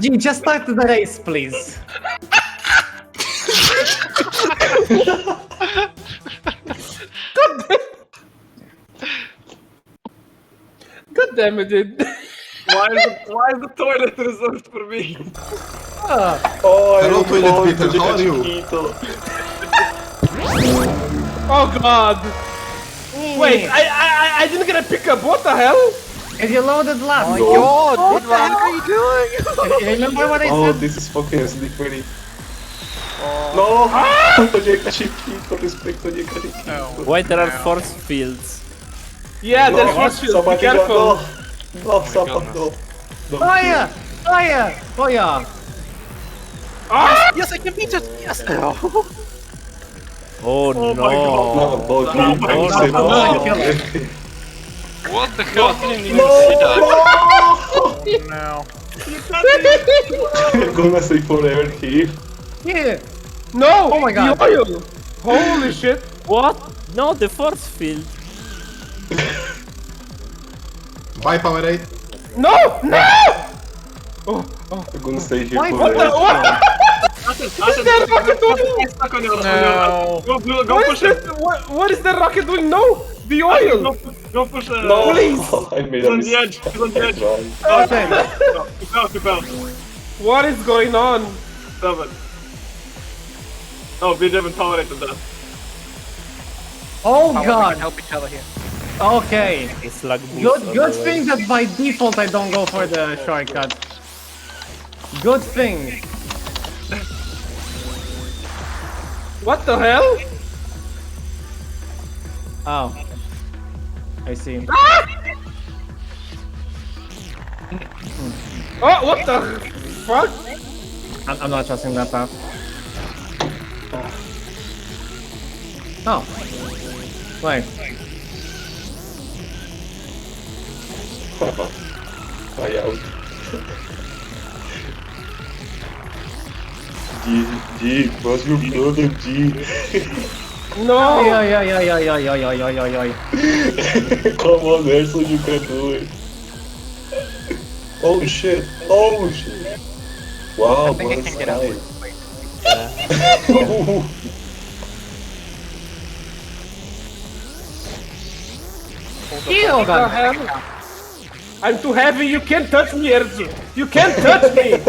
Gee, just start the race, please. God damn it, dude. Why is, the, why is the toilet reserved for me? Oh, Hello, I'm toilet going paper, to the how are you? chiquito. Oh god. Wait, I, I I- I didn't get a pickup. What the hell? And you loaded Oh, last. God, what the hell are you doing? Remember what I Oh, said? this is fucking slippery. No! Ah! Tojeka Chiquito, respect Tojeka Chiquito. Why there are force fields? Yeah, No, there's force field. Be somebody got- careful. No, no someone, no. Don't Fire! Fire! Fire! Ah! Yes, I can beat it. Yes. Oh, kill. no! No, don't kill. Don't say no. What the hell? I didn't even see that. No! No. You're gonna stay forever here. Yeah. No! Oh my the God. oil. Holy shit. What? No, the force field. Bye, Powerade. No! No! You're gonna stay here Why- forever. what What the what? Ashen, that fucking toilet? Get stuck on your, No. on your, go, go, go What is push it. that? What, what is that rocket doing? No! The Go, oil! pu- go push it. No! Please. I made He's a on the mistake. edge. He's on the edge. Right. Okay. No, Keep out, keep out. What is going on? Stop it. No, we haven't tolerated that. Oh We can god. help each other here. Okay. It's like boost Good. Good otherwise. thing that by default I don't go for the shortcut. Good thing. What the hell? Oh. I see. Oh, what the fuck? I'm, I'm not trusting that path. Oh. Wait. Vai out. G, G, what's your brother, G? No! Oh. Oi, oi, oi, oi, oi, oi, oi, oi, oi, oi. Come on, Erson, you can do it. Oh shit, oh shit. Wow, I think I can get out. nice. Wait, wait. Uh. Ew, What the Oh, god. hell? I'm too heavy, you can't touch me, Erzu! You can't touch me!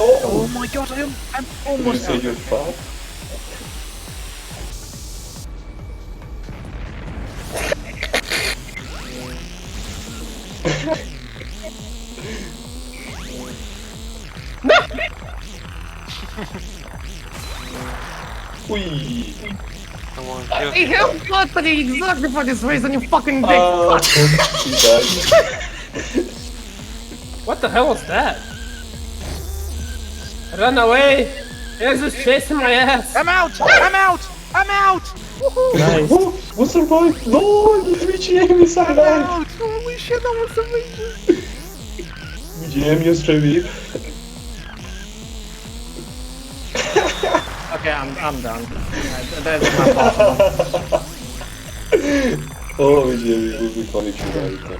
Oh Oh, my god, I am, I'm you almost say out. you're fat? Ui. I have lottery exactly for this reason, you fucking dick. Ah, cuidado. What the hell was that? Run away! Erzu's chasing my ass! I'm out! I'm out! I'm out! Nice. Oh, we survived! No, the 3GM is I'm alive! out! Holy shit, that was amazing! 3GM is revive. Oh, Okay, I'm, I'm done. That's not possible. Oh, 3GM will be funny to later.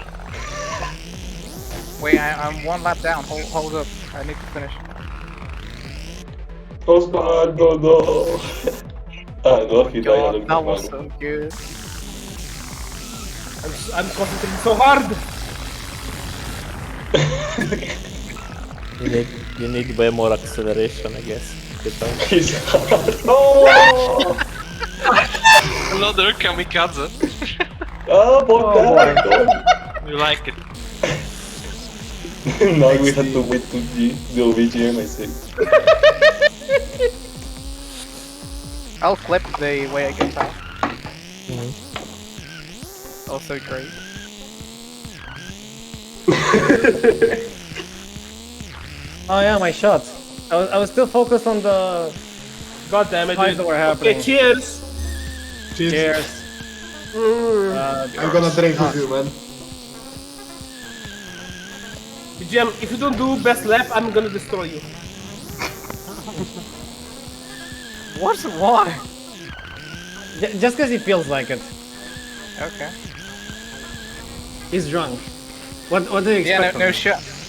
Wait, I, I'm one lap down. Hold, hold up. I need to finish. Osvaldo, no! Ah, no, he died on the that was ground. so good. I'm, s- I'm concentrating so hard! You need, you need way more acceleration, I guess. Get out. He's No! Another kamikaze. Ah, Bogdan! You like it. now we have to wait to the, the VGM, I think. I'll clip the way I get out. Also great. Oh yeah, my shot. I was, I was still focused on the God damn it! fights that dude. were Okay, happening. cheers! Cheers. Cheers. Uh, I'm gonna drink with you, man. Jim, if you don't do best lap, I'm gonna destroy you. What's why? j- just because he feels like it. Okay. He's drunk. What What do you Yeah, expect? no, from no him? shit.